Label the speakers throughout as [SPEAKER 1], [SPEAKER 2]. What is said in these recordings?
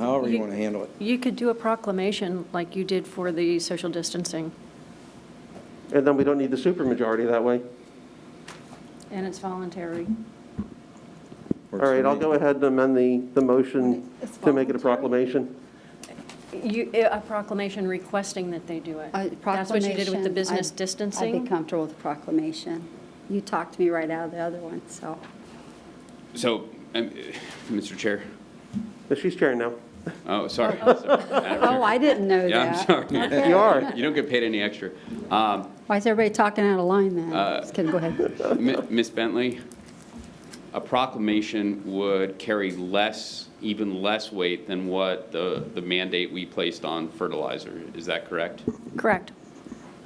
[SPEAKER 1] however you
[SPEAKER 2] You-
[SPEAKER 1] want to handle it.
[SPEAKER 2] You could do a proclamation like you did for the social distancing,
[SPEAKER 3] And then we don't need the supermajority that way.
[SPEAKER 2] and it's voluntary.
[SPEAKER 1] Works
[SPEAKER 3] All right,
[SPEAKER 1] for
[SPEAKER 3] I'll
[SPEAKER 1] me.
[SPEAKER 3] go ahead and amend the, the motion
[SPEAKER 4] It's
[SPEAKER 3] to make it a
[SPEAKER 4] voluntary?
[SPEAKER 3] proclamation.
[SPEAKER 2] You, eh, a proclamation requesting that they do it.
[SPEAKER 4] A
[SPEAKER 2] That's what you did with the
[SPEAKER 4] proclamation,
[SPEAKER 2] business
[SPEAKER 4] I'd- I'd be
[SPEAKER 2] distancing.
[SPEAKER 4] comfortable with a proclamation. You talked me right out of the other one, so.
[SPEAKER 5] So, um, Mr. Chair,
[SPEAKER 3] But She's chairing now.
[SPEAKER 5] oh, sorry. Oh,
[SPEAKER 4] Oh, I didn't know that.
[SPEAKER 5] Yeah, I'm sorry.
[SPEAKER 3] You are.
[SPEAKER 5] You don't get paid any extra. Um,
[SPEAKER 4] Why is everybody talking out of line then?
[SPEAKER 5] Uh,
[SPEAKER 4] Just kidding, go ahead.
[SPEAKER 5] M- Ms. Bentley, a proclamation would carry less, even less weight than what the the mandate we placed on fertilizer. Is that correct?
[SPEAKER 2] Correct.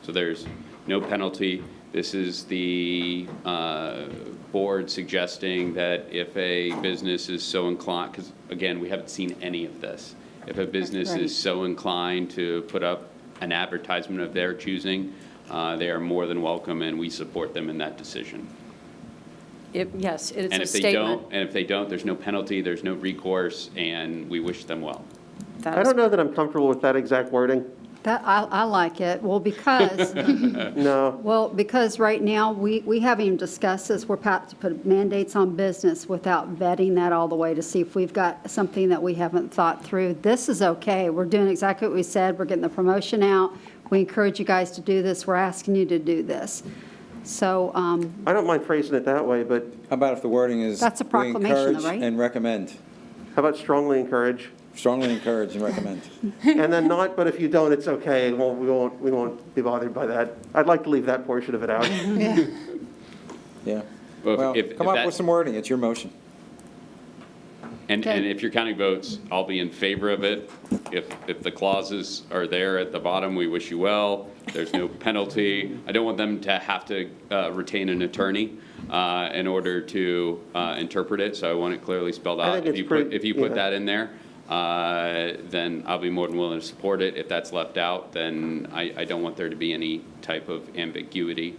[SPEAKER 5] So there's no penalty. This is the uh, board suggesting that if a business is so inclined, because again, we haven't seen any of this. If a business
[SPEAKER 4] Right.
[SPEAKER 5] is so inclined to put up an advertisement of their choosing, uh, they are more than welcome, and we support them in that decision.
[SPEAKER 2] It- Yes, it's a
[SPEAKER 5] And if they
[SPEAKER 2] statement.
[SPEAKER 5] don't, and if they don't, there's no penalty, there's no recourse, and we wish them well.
[SPEAKER 2] That
[SPEAKER 3] I
[SPEAKER 2] was-
[SPEAKER 3] don't know that I'm comfortable with that exact wording.
[SPEAKER 4] That, I, I like it. Well, because,
[SPEAKER 3] No.
[SPEAKER 4] well, because right now, we, we haven't even discussed this. We're about to put mandates on business without vetting that all the way to see if we've got something that we haven't thought through. This is okay. We're doing exactly what we said. We're getting the promotion out. We encourage you guys to do this. We're asking you to do this. So, um,
[SPEAKER 3] I don't mind phrasing it that way, but
[SPEAKER 1] How about if the wording is?
[SPEAKER 4] That's a
[SPEAKER 1] we
[SPEAKER 4] proclamation, though,
[SPEAKER 1] encourage
[SPEAKER 4] right?
[SPEAKER 1] And recommend,
[SPEAKER 3] how about strongly encourage?
[SPEAKER 1] strongly encourage and recommend.
[SPEAKER 3] And then not, but if you don't, it's okay, Well, we won't, we won't be bothered by that. I'd like to leave that portion of it out.
[SPEAKER 1] Yeah.
[SPEAKER 5] Well, if-
[SPEAKER 1] Well,
[SPEAKER 5] if-
[SPEAKER 1] come
[SPEAKER 5] if
[SPEAKER 1] up
[SPEAKER 5] that-
[SPEAKER 1] with some wording, it's your motion.
[SPEAKER 5] And,
[SPEAKER 4] Okay.
[SPEAKER 5] and if your county votes, I'll be in favor of it. If, if the clauses are there at the bottom, we wish you well. There's no penalty. I don't want them to have to uh, retain an attorney uh, in order to uh, interpret it, so I want it clearly spelled
[SPEAKER 3] I
[SPEAKER 5] out.
[SPEAKER 3] think
[SPEAKER 5] If
[SPEAKER 3] it's
[SPEAKER 5] you put-
[SPEAKER 3] pretty-
[SPEAKER 5] If you put
[SPEAKER 3] yeah.
[SPEAKER 5] that in there, uh, then I'll be more than willing to support it. If that's left out, then I, I don't want there to be any type of ambiguity.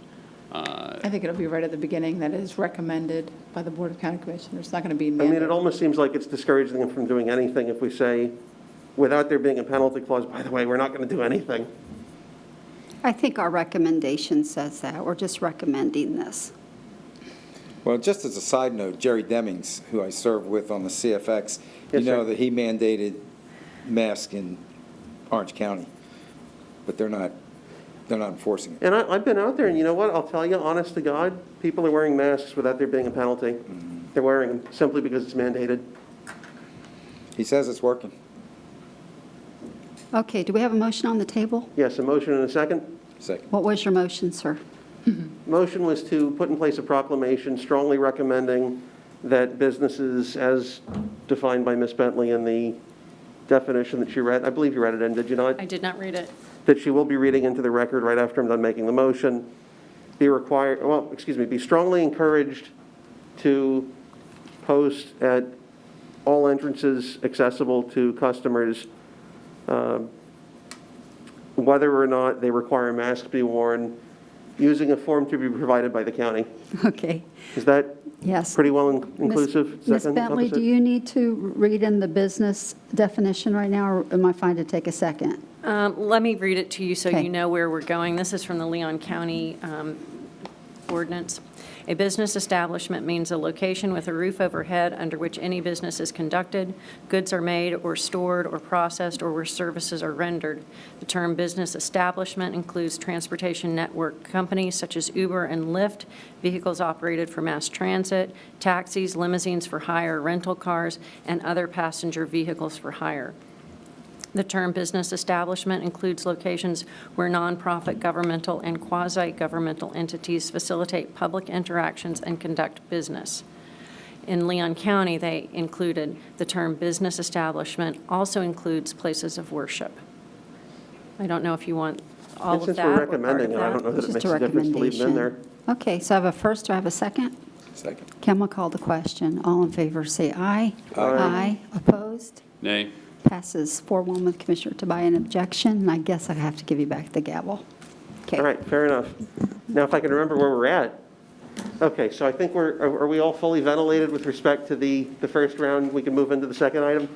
[SPEAKER 5] uh,
[SPEAKER 6] I think it'll be right at the beginning that it is recommended by the Board of County Commissioners. It's not going to be
[SPEAKER 3] I mean, it
[SPEAKER 6] mandated.
[SPEAKER 3] almost seems like it's discouraging them from doing anything if we say, without there being a penalty clause, by the way, we're not going to do anything.
[SPEAKER 4] I think our recommendation says that. We're just recommending this.
[SPEAKER 1] Well, just as a side note, Jerry Demings, who I serve with on the CFX, you
[SPEAKER 3] Yes, sir.
[SPEAKER 1] know that he mandated masks in Orange County, but they're not, they're not enforcing it.
[SPEAKER 3] And I, I've been out there, and you know what? I'll tell you, honest to God, people are wearing masks without there being a penalty. They're wearing them simply because it's mandated.
[SPEAKER 1] He says it's working.
[SPEAKER 4] Okay, do we have a motion on the table?
[SPEAKER 3] Yes, a motion and a second.
[SPEAKER 1] Second.
[SPEAKER 4] What was your motion, sir?
[SPEAKER 3] Motion was to put in place a proclamation strongly recommending that businesses, as defined by Ms. Bentley in the definition that she read, I believe you read it in, did you not?
[SPEAKER 2] I did not read it.
[SPEAKER 3] that she will be reading into the record right after I'm done making the motion, be required, well, excuse me, be strongly encouraged to post at all entrances accessible to customers, um, whether or not they require masks be worn, using a form to be provided by the county.
[SPEAKER 4] Okay,
[SPEAKER 3] Is that
[SPEAKER 4] yes.
[SPEAKER 3] pretty well in-
[SPEAKER 4] Ms.
[SPEAKER 3] inclusive? Does that
[SPEAKER 4] Ms.
[SPEAKER 3] encompass
[SPEAKER 4] Bentley, do
[SPEAKER 3] it?
[SPEAKER 4] you need to read in the business definition right now, or am I fine to take a second?
[SPEAKER 2] Um, Let me read it to you so
[SPEAKER 4] Okay.
[SPEAKER 2] you know where we're going. This is from the Leon County um, ordinance. A business establishment means a location with a roof overhead under which any business is conducted, goods are made or stored or processed, or where services are rendered. The term business establishment includes transportation network companies such as Uber and Lyft, vehicles operated for mass transit, taxis, limousines for hire, rental cars, and other passenger vehicles for hire. The term business establishment includes locations where nonprofit, governmental, and quasi-governmental entities facilitate public interactions and conduct business. In Leon County, they included the term business establishment also includes places of worship. I don't know if you want all
[SPEAKER 3] And
[SPEAKER 2] of
[SPEAKER 3] Since
[SPEAKER 2] that
[SPEAKER 3] we're
[SPEAKER 2] or part of
[SPEAKER 3] recommending it, I
[SPEAKER 2] that.
[SPEAKER 3] don't know that it
[SPEAKER 4] Just
[SPEAKER 3] makes
[SPEAKER 4] a
[SPEAKER 3] a difference to leave it in there.
[SPEAKER 4] recommendation. Okay, so I have a first, do I have a second?
[SPEAKER 1] Second.
[SPEAKER 4] Kim will call the question. All in favor, say aye. Aye. Opposed?
[SPEAKER 5] Nay?
[SPEAKER 4] Passes 4-1 with Commissioner Tobias an objection, and I guess I have to give you back the gavel. Okay.
[SPEAKER 3] All right, fair enough. Now, if I can remember where we're at. Okay, so I think we're, are are we all fully ventilated with respect to the, the first round? We can move into the second item?